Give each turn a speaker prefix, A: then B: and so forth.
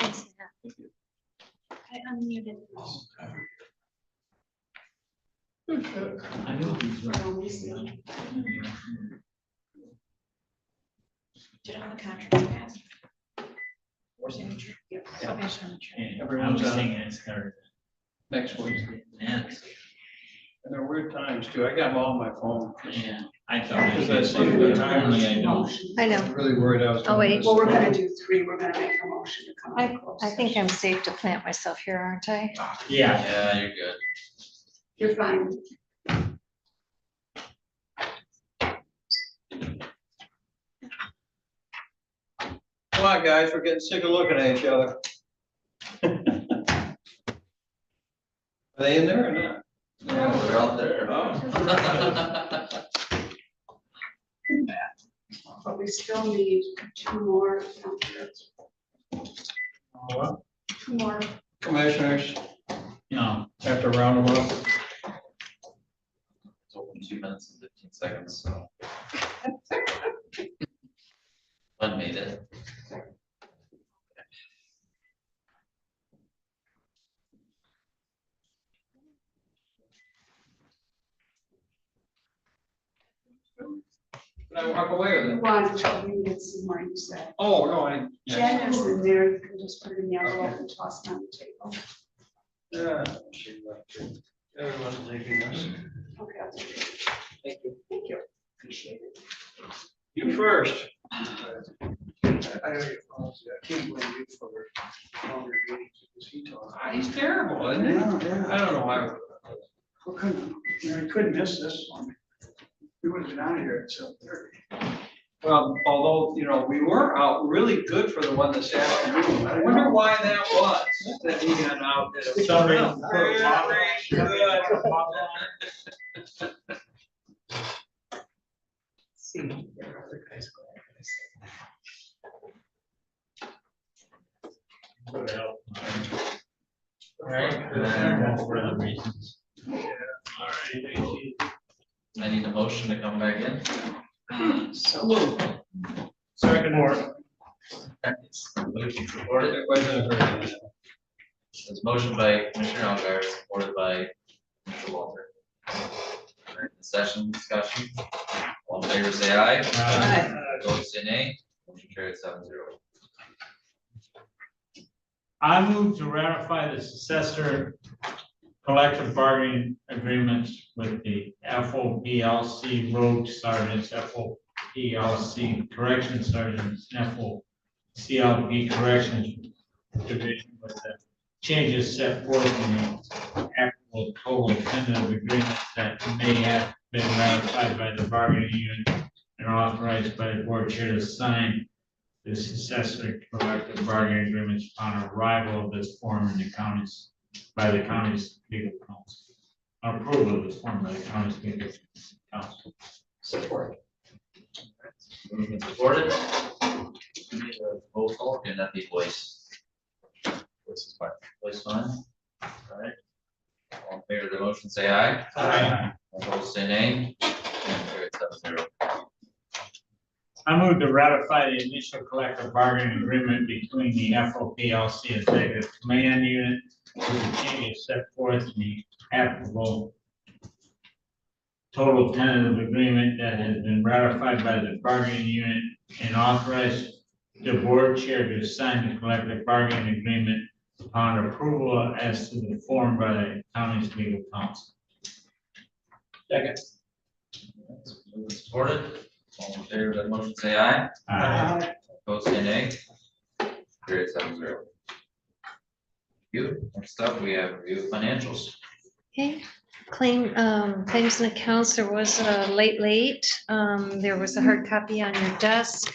A: Thanks, Hannah. I unmuted.
B: I know he's right.
A: Did all the contracts pass? Signature? Yep. Okay, signature.
B: And
C: Everyone's
B: I'm
C: out.
B: saying it's hard.
C: next Wednesday.
B: Next.
C: And there are weird times too. I got them all on my phone.
B: Yeah, I thought.
C: Because I see
B: Only
C: the time.
B: I don't.
D: I know.
C: I'm Really worried I was.
D: Oh, wait.
E: Well, we're gonna do three, we're gonna make a motion to come out of closed
D: I think
E: session.
D: I'm safe to plant myself here, aren't I?
B: Yeah.
F: Yeah, you're good.
E: You're fine.
C: Come on, guys, we're getting sick of looking at each other. Are they in there or not?
F: Yeah, we're out there.
C: Oh.
E: But we still need two more, um,
C: Well,
E: two more.
C: Oh. Commissioners,
B: No,
C: have to round them up.
F: It's open two minutes and fifteen seconds, so. Glenn made it.
C: Can I walk away with it?
E: One, you did some more, you said.
C: Oh, no, I.
E: Jen is in there, you can just put it in yellow and toss it on the table.
C: Yeah. she left it. Everyone's leaving us.
E: Okay, I'll do it.
C: Thank you.
E: thank you, appreciate it.
C: You first. Ah, He's terrible, isn't he? I don't know why.
G: Well, couldn't, you know, I couldn't miss this one. We would have been out of here at seven thirty.
C: Well, Um, although, you know, we were out really good for the one this afternoon. I wonder why that was, that he got out. at a-
B: Sorry.
C: Very good.
E: See, there are other guys going.
B: All right. For other reasons. All right, thank you.
F: I need a motion to come back in.
B: Second more.
F: Motion supported.
C: It wasn't very good.
F: This motion by Commissioner Algar, supported by Commissioner Walter. We're in Session discussion. All in favor, say aye. Vote say nay. Motion carried seven zero.
B: I move to ratify the successor collective bargaining agreements with the FOBLC road sergeants, FOBLC correction sergeants, FOCLB corrections division with the changes set forth in the actual total tentative agreements that may have been ratified by the bargaining union and authorized by the board chair to sign the successor collective bargaining agreements upon arrival of this form in the counties, by the county's legal council. Approval of this form by the county's legal council.
F: Support. Moved and Mm-hmm. supported. We need a Roll call, and that be voice. Voice is fine. Voice fine. All right. All in favor of the motion, say aye. Vote say nay. Motion carried seven zero.
B: I move to ratify the initial collective bargaining agreement between the FOPLC Executive Command Unit with the changes set forth in the applicable total tentative agreement that has been ratified by the bargaining unit and authorized the board chair to sign the collective bargaining agreement upon approval as to the form by the county's legal counsel.
C: Second.
F: Moved and supported. All in favor of the motion, say aye.
B: Aye.
F: Vote say nay. Period seven zero. You, next up, we have review of financials.
D: Okay, claim, um, claims uh, and accounts, there was a late, late, um, there was a hard copy on your desk.